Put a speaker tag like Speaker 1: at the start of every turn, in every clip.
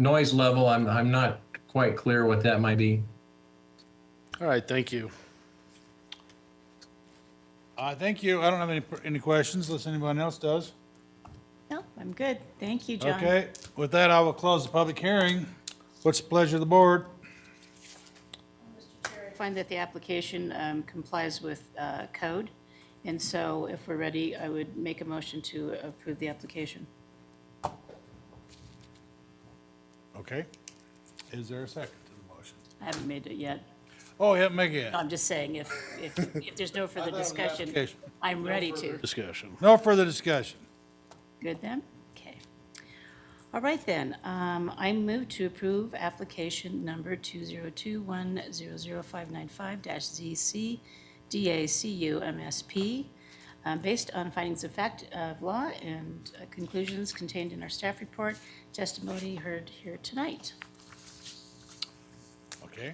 Speaker 1: noise level, I'm, I'm not quite clear what that might be.
Speaker 2: All right, thank you.
Speaker 3: Uh, thank you. I don't have any, any questions, unless anyone else does.
Speaker 4: No, I'm good. Thank you, John.
Speaker 3: Okay, with that, I will close the public hearing. What's the pleasure of the board?
Speaker 4: I Find that the application um, complies with uh, code, and so if we're ready, I would make a motion to approve the application.
Speaker 3: Okay, is there a second to the motion?
Speaker 4: I haven't made it yet.
Speaker 3: Oh, yeah, make it.
Speaker 4: No, I'm just saying, if, if, if there's no further
Speaker 3: thought it was an
Speaker 4: discussion,
Speaker 3: application.
Speaker 4: I'm ready to.
Speaker 2: Discussion.
Speaker 3: No further discussion.
Speaker 4: Good then? Okay. All right then, um, I move to approve application number 202100595-ZC DACU MSP, um, based on findings of fact of law and uh, conclusions contained in our staff report, testimony heard here tonight.
Speaker 3: Okay.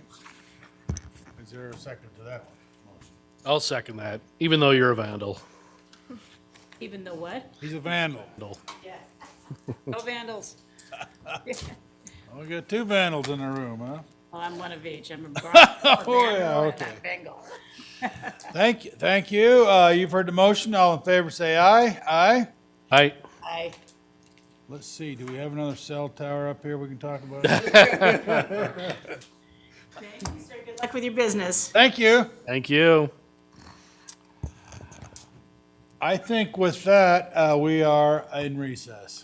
Speaker 3: Is there a second to that one? Motion.
Speaker 2: I'll second that, even though you're a vandal.
Speaker 4: Even though what?
Speaker 3: He's a vandal.
Speaker 2: Vandal.
Speaker 4: Yeah. No vandals.
Speaker 3: Oh, we got two vandals in the room, huh?
Speaker 4: Well, I'm one of each. I'm a Bronco, a
Speaker 3: Oh, yeah,
Speaker 4: vandal, and
Speaker 3: okay.
Speaker 4: a Bengal.
Speaker 3: Thank you, thank you. Uh, you've heard the motion. All in favor, say aye. Aye.
Speaker 2: I,
Speaker 4: I,
Speaker 3: Let's see, do we have another cell tower up here we can talk about?
Speaker 4: thank you, sir. Good luck with your business.
Speaker 3: Thank you.
Speaker 2: thank you.
Speaker 3: I think with that, uh, we are in recess.